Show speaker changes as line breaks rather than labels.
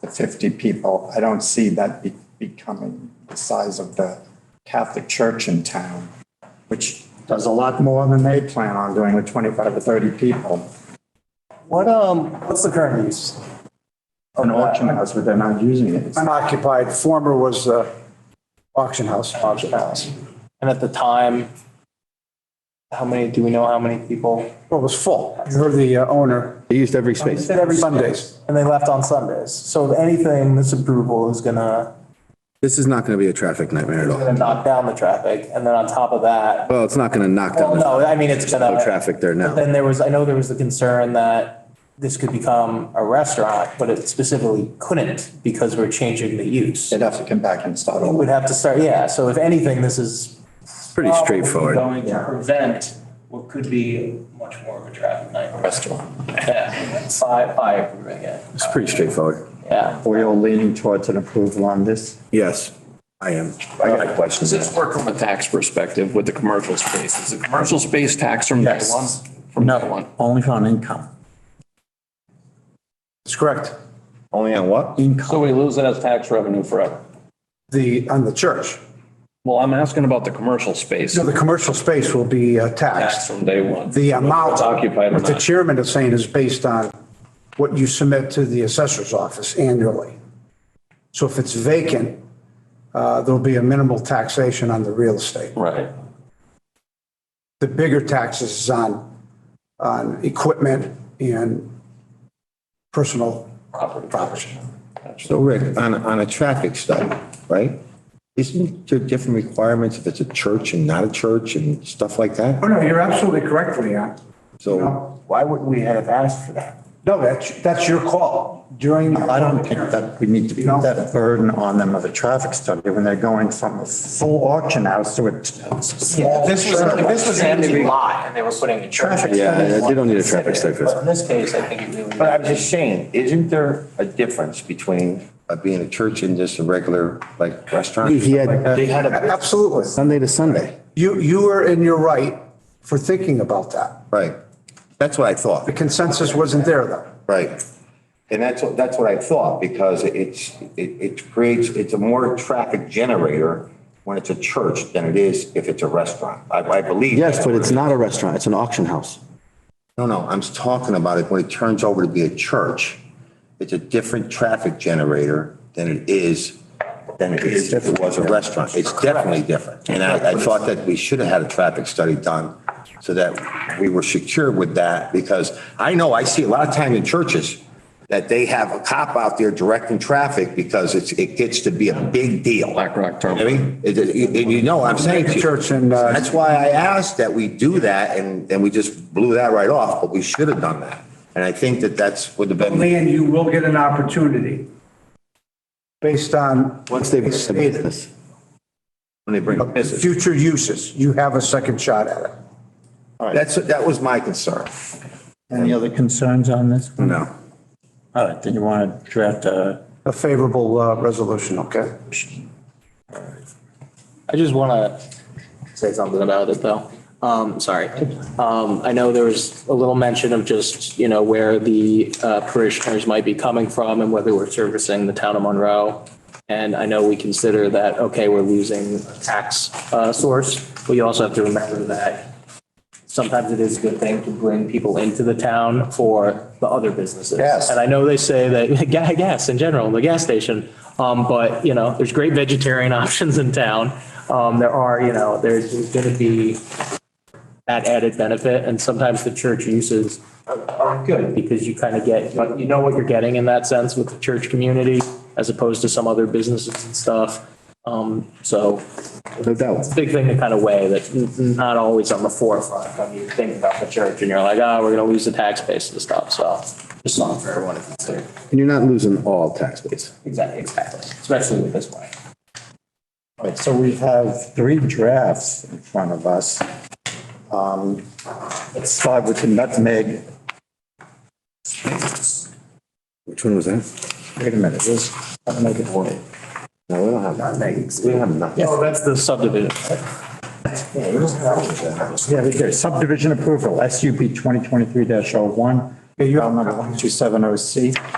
the 50 people, I don't see that be- becoming the size of the Catholic church in town, which does a lot more than they plan on doing with 25 or 30 people.
What, um, what's the current use?
An auction house, but they're not using it.
Unoccupied, former was uh, auction house. Auction house.
And at the time, how many, do we know how many people?
Well, it was full. You heard the uh, owner.
They used every space.
said every Sundays.
And they left on Sundays. So if anything, this approval is gonna,
This is not going to be a traffic nightmare at all.
gonna knock down the traffic. And then on top of that,
Well, it's not going to knock
well,
down the
no, I mean, it's gonna.
no traffic there now.
Then there was, I know there was the concern that this could become a restaurant, but it specifically couldn't because we're changing the use.
They'd have to come back and start
We'd
over.
have to start, yeah. So if anything, this is
It's pretty straightforward.
Going to prevent what could be much more of a traffic nightmare.
Restaurant.
Yeah, By, by approving it.
It's pretty straightforward.
Yeah.
Are we all leaning towards an approval on this?
Yes, I am. I got questions.
Does this work from a tax perspective with the commercial space? Is the commercial space tax from day one? From day one?
Only on income.
That's correct.
Only on what?
So we lose it as tax revenue forever.
The, on the church.
Well, I'm asking about the commercial space
So the commercial space will be uh,
tax
taxed.
from day one.
The amount.
It's occupied or
What the
not.
chairman is saying is based on what you submit to the assessor's office annually. So if it's vacant, uh, there'll be a minimal taxation on the real estate.
Right.
the bigger taxes is on, on equipment and personal property.
So Rick, on, on a traffic study, right? Isn't there different requirements if it's a church and not a church and stuff like that?
Oh, no, you're absolutely correct, Leon.
So
Why wouldn't we have asked for that? No, that's, that's your call during.
I don't think that we need to put
No.
that burden on them of a traffic study when they're going from a full auction house to a small.
This was, this was
empty lot and they were putting a church.
yeah, they don't need a traffic study for
But
that.
in this case, I think it really.
But I'm just saying, isn't there a difference between
Uh, Being a church and just a regular like restaurant.
He had, they had a
Absolutely.
Sunday to Sunday.
You, you were in your right for thinking about that.
Right. That's what I thought.
The consensus wasn't there though.
Right.
And that's, what that's what I thought, because it's, it, it creates, it's a more traffic generator when it's a church than it is if it's a restaurant. I, I believe.
Yes, but it's not a restaurant. It's an auction house.
No, no, I'm talking about it when it turns over to be a church. It's a different traffic generator than it is, than it is if it was a restaurant. It's definitely different. And I, I thought that we should have had a traffic study done so that we were secure with that because I know I see a lot of time in churches that they have a cop out there directing traffic because it's, it gets to be a big deal.
Black Rock
I
Terminal.
mean, it- it- and you know, what I'm saying to you.
Church and, uh,
That's why I asked that we do that and, and we just blew that right off, but we should have done that. And I think that that's would have been,
Leon, you will get an opportunity. Based on.
Once they've
what
the
stated.
business.
when they bring business.
Future uses, you have a second shot at it.
That's, that was my concern.
Any other concerns on this?
No.
All right, then you want to draft a
A favorable uh, resolution, okay?
I just want to say something about it, though. Um, sorry. Um, I know there was a little mention of just, you know, where the uh, parishioners might be coming from and whether we're servicing the town of Monroe. And I know we consider that, okay, we're losing a tax, uh, source. We also have to remember that sometimes it is a good thing to bring people into the town for the other businesses.
Yes.
And I know they say that ga- gas in general, the gas station, um, but you know, there's great vegetarian options in town. Um, there are, you know, there's going to be that added benefit and sometimes the church uses are- are good because you kind of get, but you know what you're getting in that sense with the church community as opposed to some other businesses and stuff. Um, so
No doubt.
it's a big thing to kind of weigh that's n- n- not always on the forefront when you think about the church and you're like, oh, we're going to lose the tax base and stuff. So just something for everyone to consider.
And you're not losing all tax base.
Exactly, exactly. Especially with this one.
All right, so we have three drafts in front of us. Um, Let's start with the nutmeg.
Which one was that?
Wait a minute, this, nutmeg is what?
No, we don't have that. We don't have nothing.
Oh, that's the subdivision.
Yeah, we do. oh Subdivision approval, SUP 2023-01, file number 1270C.